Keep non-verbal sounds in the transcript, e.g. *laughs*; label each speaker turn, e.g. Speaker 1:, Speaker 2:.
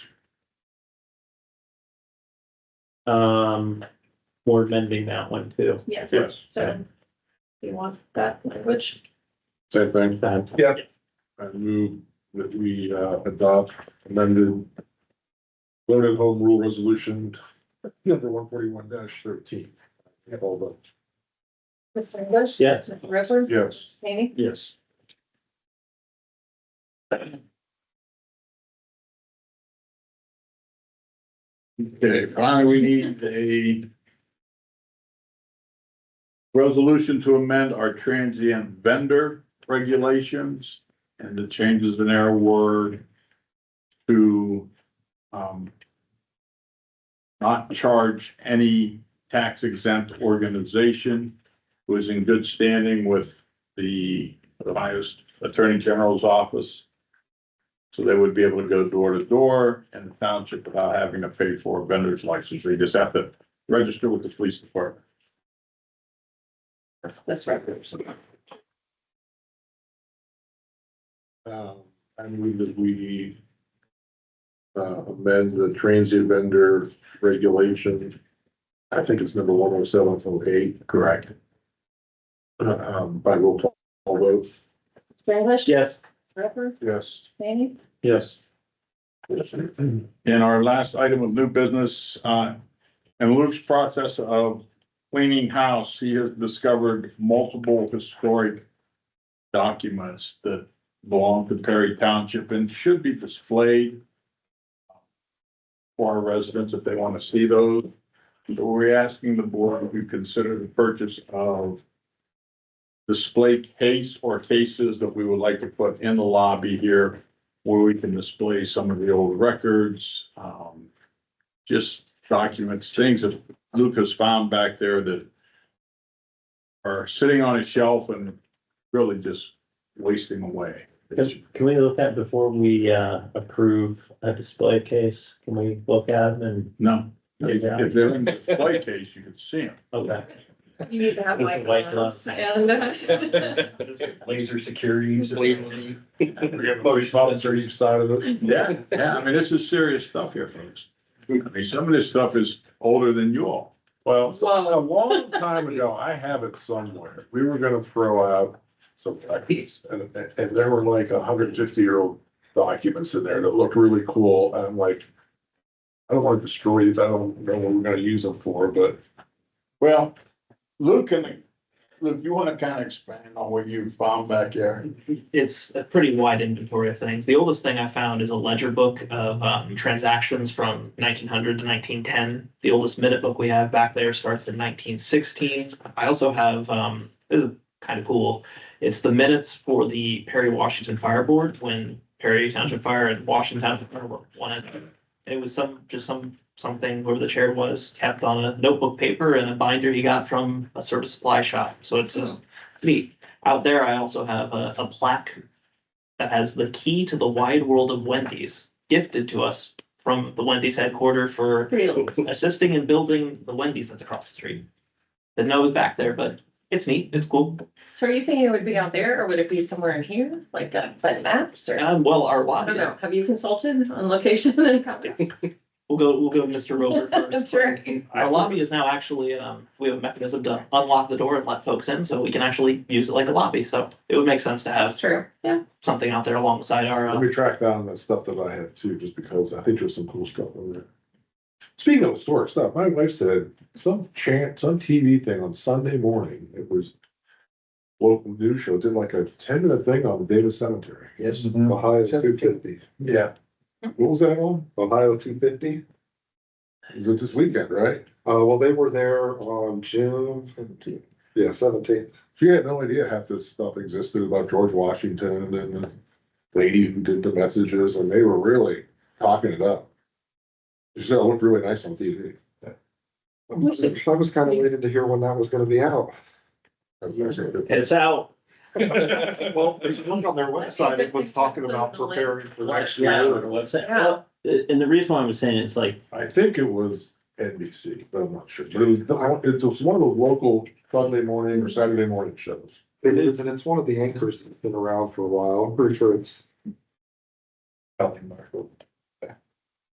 Speaker 1: Um, we're amending that one too.
Speaker 2: Yes,
Speaker 3: Yes,
Speaker 2: so you want that language?
Speaker 3: same thing.
Speaker 1: That-
Speaker 3: I move that we uh, adopt amended voted home rule resolution number one forty-one thirteen. All those.
Speaker 2: Mr. English?
Speaker 1: Yes.
Speaker 2: Mr. Ritter?
Speaker 3: Yes.
Speaker 2: Haney?
Speaker 1: Yes.
Speaker 4: Okay, finally, we need a resolution to amend our transient vendor regulations, and the changes in there were to, um, not charge any tax exempt organization who is in good standing with the highest Attorney General's office. So they would be able to go door to door in the township without having to pay for a vendor's license. They just have to register with the police department.
Speaker 2: That's this resolution.
Speaker 3: Um, I move that we uh, amend the transient vendor regulation. I think it's number one oh seven oh eight. Correct. Um, by roll call vote.
Speaker 2: Mr. English?
Speaker 1: Yes.
Speaker 2: Ritter?
Speaker 3: Yes.
Speaker 2: Haney?
Speaker 1: Yes.
Speaker 4: And our last item of new business, uh, in Luke's process of cleaning house, he has discovered multiple historic documents that belong to Perry Township and should be displayed for our residents if they want to see those. So we're asking the board if you consider the purchase of display case or cases that we would like to put in the lobby here where we can display some of the old records, um, just documents, things that Lucas found back there that are sitting on a shelf and really just wasting away.
Speaker 1: Can can we look at before we uh approve a display case? Can we look at them and?
Speaker 4: No, if
Speaker 1: Yeah.
Speaker 4: if they're in the display case, you can see them.
Speaker 1: Okay.
Speaker 2: You need to have
Speaker 1: With the
Speaker 2: white
Speaker 1: white
Speaker 2: gloves
Speaker 1: *laughs*
Speaker 2: and. uh,
Speaker 5: laser security.
Speaker 3: side of it.
Speaker 4: Yeah, yeah, I mean, this is serious stuff here, folks. I mean, some of this stuff is older than you all.
Speaker 3: Well, a
Speaker 2: Whoa.
Speaker 3: long time ago, I have it somewhere. We were gonna throw out some records and, and there were like hundred and fifty year old documents in there that looked really cool. And I'm like, I don't want to destroy these. I don't know what we're gonna use them for, but
Speaker 4: Well, Luke can, Luke, you wanna kinda expand on what you found back there?
Speaker 6: it's a pretty wide inventory of things. The oldest thing I found is a ledger book of um, transactions from nineteen hundred to nineteen ten. The oldest minute book we have back there starts in nineteen sixteen. I also have, um, this is kind of cool. It's the minutes for the Perry Washington Fire Board when Perry Township Fire and Washington Township Fire were one. It was some, just some, something where the chair was kept on a notebook paper and a binder he got from a service supply shop. So it's a, it's neat. Out there, I also have a, a plaque that has the key to the wide world of Wendy's gifted to us from the Wendy's headquarter for
Speaker 2: Really?
Speaker 6: *laughs* assisting in building the Wendy's that's across the street. Didn't know it was back there, but it's neat, it's cool.
Speaker 2: So are you thinking it would be out there or would it be somewhere in here, like uh, by maps or?
Speaker 6: Um, well, our
Speaker 2: I don't
Speaker 6: lobby,
Speaker 2: know. Have you consulted on location and copy?
Speaker 6: we'll go, we'll go to Mr.
Speaker 2: *laughs*
Speaker 6: Rover
Speaker 2: That's
Speaker 6: first.
Speaker 2: right.
Speaker 6: Our lobby is now actually, um, we have a mechanism to unlock the door and let folks in, so we can actually use it like a lobby, so it would make sense to
Speaker 2: That's
Speaker 6: have
Speaker 2: true. Yeah.
Speaker 6: something out there alongside our,
Speaker 3: let
Speaker 6: uh,
Speaker 3: me track down that stuff that I have too, just because I think there's some cool stuff in there. Speaking of historic stuff, my wife said some chant, some TV thing on Sunday morning, it was local news show, did like a ten minute thing on the Davis Cemetery.
Speaker 5: Yes.
Speaker 3: Ohio two fifty.
Speaker 5: Yeah,
Speaker 3: What was that on?
Speaker 5: Ohio two fifty.
Speaker 3: It was this weekend, right?
Speaker 5: Uh, well, they were there on June seventeenth.
Speaker 3: Yes.
Speaker 5: Seventeenth.
Speaker 3: She had no idea half this stuff existed about George Washington and the lady who did the messages, and they were really talking it up. She said it looked really nice on TV.
Speaker 5: I was kind of waiting to hear when that was gonna be out.
Speaker 3: I was gonna say,
Speaker 1: It's out.
Speaker 5: Well, there's a link on their website. It was talking about preparing for next year.
Speaker 1: What's that?
Speaker 2: Yeah.
Speaker 1: Well, And the reason why I'm saying it's like,
Speaker 3: I think it was NBC, but I'm not sure. But it was, it was one of those local Sunday morning or Saturday morning shows.
Speaker 5: It is, and it's one of the anchors that's been around for a while. I'm pretty sure it's
Speaker 3: Ally Marshall.